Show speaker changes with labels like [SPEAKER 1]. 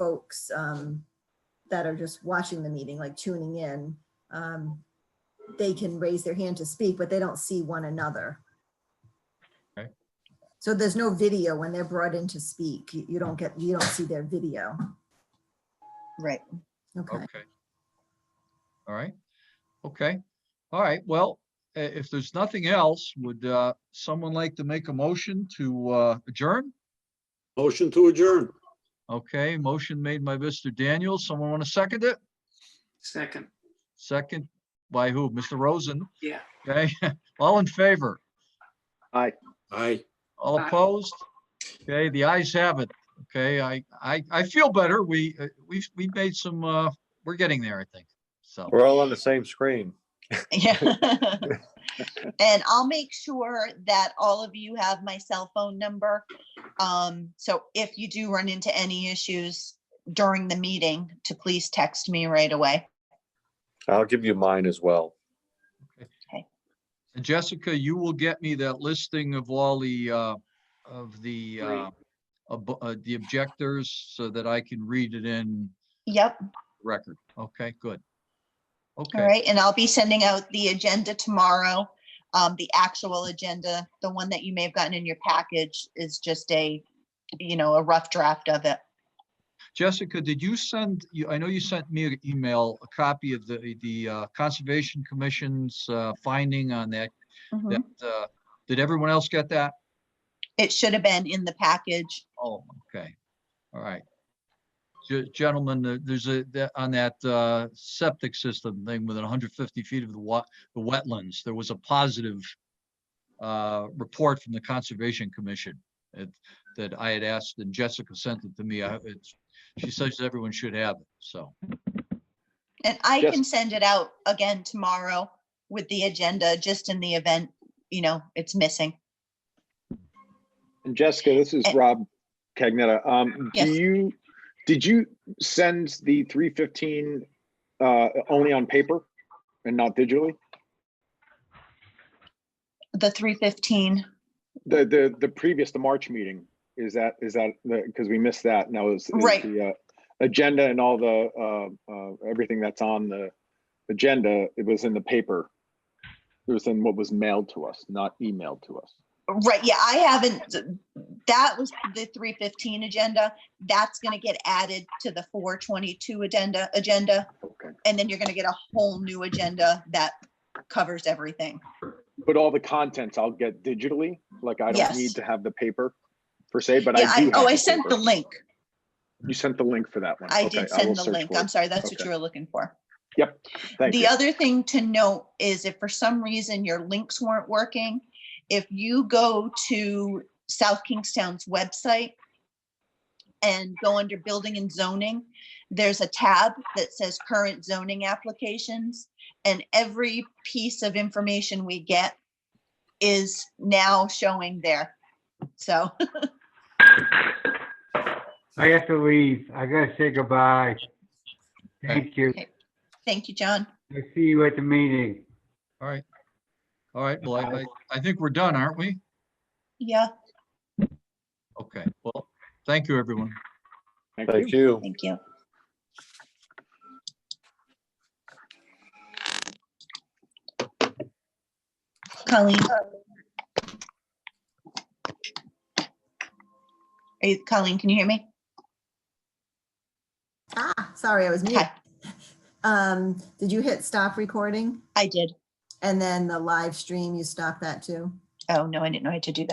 [SPEAKER 1] folks um, that are just watching the meeting, like tuning in, um, they can raise their hand to speak, but they don't see one another.
[SPEAKER 2] Okay.
[SPEAKER 1] So there's no video when they're brought in to speak. You you don't get, you don't see their video.
[SPEAKER 3] Right.
[SPEAKER 1] Okay.
[SPEAKER 2] Okay. All right, okay, all right, well, i- if there's nothing else, would uh someone like to make a motion to uh adjourn?
[SPEAKER 4] Motion to adjourn.
[SPEAKER 2] Okay, motion made by Mr. Daniels. Someone want to second it?
[SPEAKER 5] Second,
[SPEAKER 2] Second by who? Mr. Rosen?
[SPEAKER 5] yeah.
[SPEAKER 2] Okay, all in favor?
[SPEAKER 4] Aye.
[SPEAKER 2] All
[SPEAKER 5] Aye.
[SPEAKER 2] opposed? Okay, the ayes have it. Okay, I, I, I feel better. We, uh, we've, we've made some, uh, we're getting there, I think. So,
[SPEAKER 6] We're all on the same screen.
[SPEAKER 3] Yeah. And I'll make sure that all of you have my cell phone number. Um, so if you do run into any issues during the meeting, to please text me right away.
[SPEAKER 6] I'll give you mine as well.
[SPEAKER 2] and Jessica, you will get me that listing of all the, uh, of the, uh, ob- uh, the objectors so that I can read it in
[SPEAKER 3] Yep,
[SPEAKER 2] record. Okay, good.
[SPEAKER 3] all
[SPEAKER 2] Okay,
[SPEAKER 3] right, and I'll be sending out the agenda tomorrow. Um, the actual agenda, the one that you may have gotten in your package is just a, you know, a rough draft of it.
[SPEAKER 2] Jessica, did you send, you, I know you sent me an email, a copy of the, the, uh, Conservation Commission's, uh, finding on that,
[SPEAKER 3] Mhm.
[SPEAKER 2] that, uh, did everyone else get that?
[SPEAKER 3] It should have been in the package.
[SPEAKER 2] Oh, okay. All right. Ge- Gentlemen, uh, there's a, that- on that uh, septic system thing within 150 feet of the wa, the wetlands, there was a positive uh, report from the Conservation Commission it- that I had asked and Jessica sent it to me. I- it's- She says everyone should have it, so.
[SPEAKER 3] And I
[SPEAKER 6] Yes.
[SPEAKER 3] can send it out again tomorrow with the agenda, just in the event, you know, it's missing.
[SPEAKER 7] And Jessica, this is
[SPEAKER 3] Eh.
[SPEAKER 7] Rob Cagnetta. Um,
[SPEAKER 3] Yes.
[SPEAKER 7] do you, did you send the three fifteen, uh, only on paper and not digitally?
[SPEAKER 3] The three fifteen,
[SPEAKER 7] The, the, the previous, the March meeting, is that, is that, because we missed that and that was. is
[SPEAKER 3] Right.
[SPEAKER 7] the, uh, Agenda and all the, uh, uh, everything that's on the agenda, it was in the paper. It was in what was mailed to us, not emailed to us.
[SPEAKER 3] right, yeah, I haven't, that was the three fifteen agenda. That's gonna get added to the four twenty-two agenda, agenda,
[SPEAKER 7] Okay.
[SPEAKER 3] and then you're gonna get a whole new agenda that covers everything.
[SPEAKER 7] But all the contents I'll get digitally, like I don't
[SPEAKER 3] Yes.
[SPEAKER 7] need to have the paper per se, but
[SPEAKER 3] Yeah,
[SPEAKER 7] I do.
[SPEAKER 3] I, oh,
[SPEAKER 7] have
[SPEAKER 3] I sent
[SPEAKER 7] paper.
[SPEAKER 3] the link.
[SPEAKER 7] You sent the link for that one.
[SPEAKER 3] I did
[SPEAKER 7] Okay, will
[SPEAKER 3] send the
[SPEAKER 7] search
[SPEAKER 3] link.
[SPEAKER 7] for it.
[SPEAKER 3] I'm sorry, that's what
[SPEAKER 7] Okay.
[SPEAKER 3] you were looking for.
[SPEAKER 7] Thank
[SPEAKER 3] The
[SPEAKER 7] you.
[SPEAKER 3] other thing to note is if for some reason your links weren't working, if you go to South Kingstown's website and go under building and zoning, there's a tab that says current zoning applications. And every piece of information we get is now showing there. So,
[SPEAKER 8] I have to leave. I gotta say goodbye. Thank you.
[SPEAKER 3] thank you, John.
[SPEAKER 8] I'll see you at the meeting.
[SPEAKER 2] All right. All right, well, I, I- I think we're done, aren't we?
[SPEAKER 3] Yeah,
[SPEAKER 2] Okay, well, thank you, everyone.
[SPEAKER 7] Thank you.
[SPEAKER 6] Thank you.
[SPEAKER 3] thank you. Colleen? Are you, Colleen, can you hear me?
[SPEAKER 1] Ah, sorry, I was mute.
[SPEAKER 3] Hi,
[SPEAKER 1] Um, did you hit stop recording?
[SPEAKER 3] I did.
[SPEAKER 1] And then the live stream, you stop that too?
[SPEAKER 3] Oh, no, I didn't know I had to do that.